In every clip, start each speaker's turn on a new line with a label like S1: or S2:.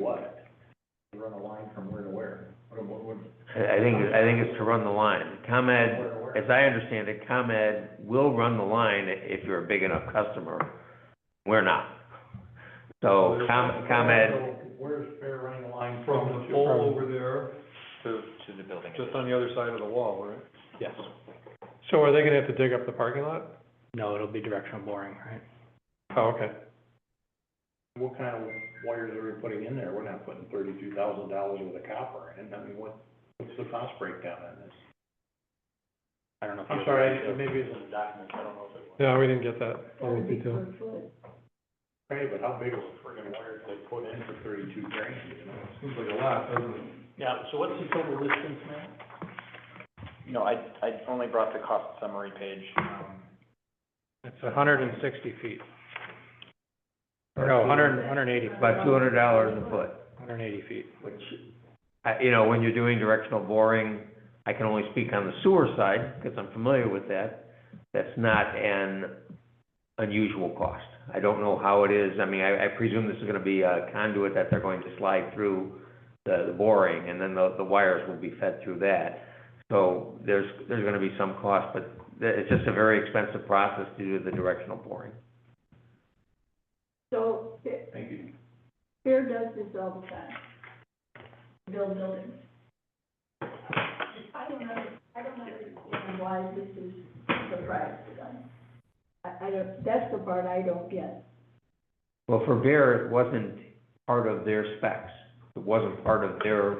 S1: what? To Run a line from where to where? What, what, what?
S2: I, I think, I think it's to run the line. ComEd,
S1: where to where?
S2: as I understand it, ComEd will run the line if you're a big enough customer. We're not. So Com, ComEd,
S1: Where's Fair running a line
S3: From
S1: from?
S3: the pole over there,
S4: To, to the building.
S3: just on the other side of the wall, right?
S5: Yes.
S3: So are they gonna have to dig up the parking lot?
S5: No, it'll be directional boring, right?
S3: Oh, okay.
S1: What kind of wires are we putting in there? We're not putting thirty-two thousand dollars worth of copper in. I mean, what, what's the cost breakdown on this?
S5: I don't know if you.
S1: I'm sorry, I- maybe it's in the documents, I don't know if it was.
S3: Yeah, we didn't get that, all the detail.
S1: Okay, but how big of a friggin' wire did they put in for thirty-two grand, you know?
S3: Seems like a lot, doesn't it?
S6: Yeah, so what's the total distance, man?
S4: No, I, I only brought the cost summary page, um,
S3: It's a hundred and sixty feet. Or no, hundred, hundred and eighty,
S2: about two hundred dollars a foot.
S3: hundred and eighty feet.
S2: which, I- you know, when you're doing directional boring, I can only speak on the sewer side, because I'm familiar with that. That's not an unusual cost. I don't know how it is, I mean, I, I presume this is gonna be a conduit that they're going to slide through the, the boring, and then the, the wires will be fed through that. So there's, there's gonna be some cost, but th- it's just a very expensive process to do the directional boring.
S7: So, Fa-
S1: Thank you.
S7: Fair does this all the time, build buildings. I don't know, I don't understand why this is the price for them. I, I don't, that's the part I don't get.
S2: Well, for Bear, it wasn't part of their specs. It wasn't part of their,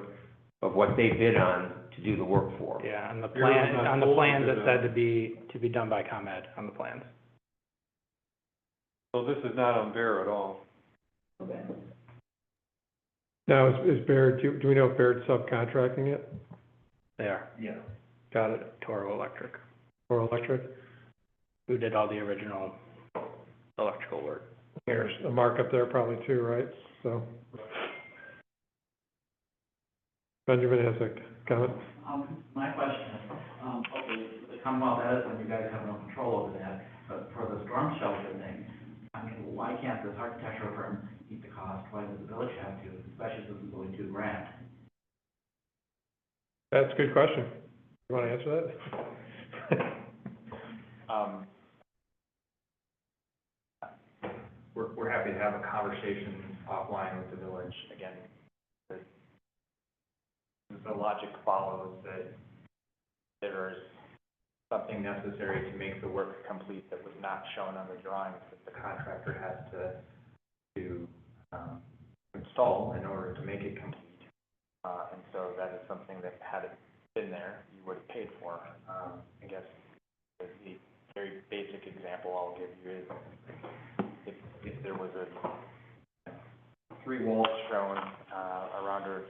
S2: of what they bid on to do the work for.
S5: Yeah, on the
S3: Yours
S5: plan,
S3: was
S5: on the
S3: not
S5: plans, it
S3: folded,
S5: said to be, to be done by ComEd on the plans.
S3: So this is not on Bear at all?
S7: Okay.
S3: Now, is, is Baird, do, do we know if Baird's subcontracting it?
S5: They are,
S1: Yeah.
S3: Got it,
S5: Toro Electric,
S3: or electric?
S5: who did all the original electrical work.
S3: There's a markup there probably too, right? So. Benjamin has a comment?
S8: Um, my question is, um, okay, the Commonwealth Edison, you guys have no control over that, but for the storm shelter thing, I mean, why can't this architectural firm eat the cost? Why does the village have to, especially since it's only two grand?
S3: That's a good question. You wanna answer that?
S4: um,
S1: We're, we're happy to have a conversation offline with the village.
S4: again, the, the logic follows that there is something necessary to make the work complete that was not shown on the drawings that the contractor has to, to, um, install in order to make it complete. Uh, and so that is something that had it been there, you would have paid for. Um, I guess the the very basic example I'll give you is if, if there was a three walls shown, uh, around or,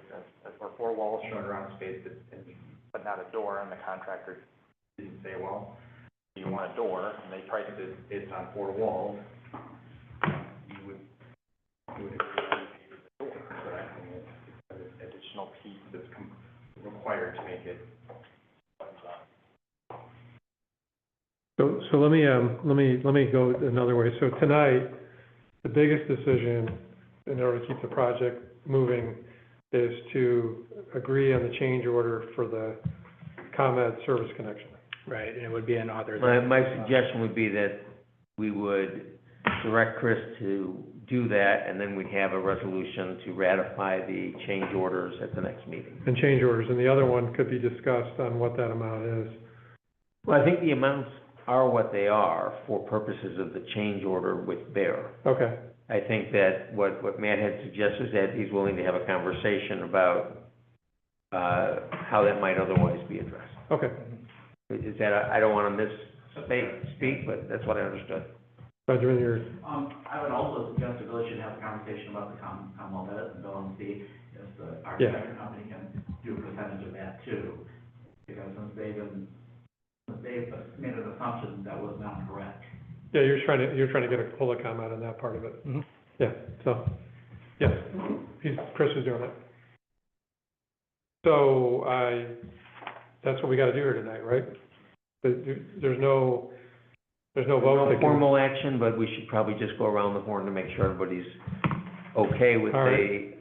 S4: or four walls shown around a space that, and- but not a door, and the contractor didn't say, well, you want a door, and they priced it, it's on four walls, you would, you would agree to pay for the door, correct? I mean, it's it's an additional piece that's com- required to make it.
S3: So, so let me, um, let me, let me go another way. So tonight, the biggest decision in order to keep the project moving is to agree on the change order for the ComEd service connection.
S5: Right, and it would be an
S2: My,
S5: authorization.
S2: my suggestion would be that we would direct Chris to do that, and then we'd have a resolution to ratify the change orders at the next meeting.
S3: And change orders, and the other one could be discussed on what that amount is.
S2: Well, I think the amounts are what they are for purposes of the change order with Bear.
S3: Okay,
S2: I think that what, what Matt had suggested, is that he's willing to have a conversation about, uh, how that might otherwise be addressed.
S3: okay.
S2: Is is that, I don't wanna misspeak, speak, but that's what I understood.
S3: Benjamin, you're,
S8: Um, I would also suggest the village should have a conversation about the Com- Commonwealth Edison bill and see if the architecture company can do a percentage of that too. Because since they've been, since they've made an assumption that was not correct.
S3: yeah, you're trying to, you're trying to get a public comment on that part of it.
S5: Mhm.
S3: Yeah, so, yes, he's, Chris is doing it. So I, that's what we gotta do here tonight, right? There- There's no, there's no vote.
S2: No
S3: that can-
S2: formal action, but we should probably just go around the horn to make sure everybody's okay with
S3: All
S2: the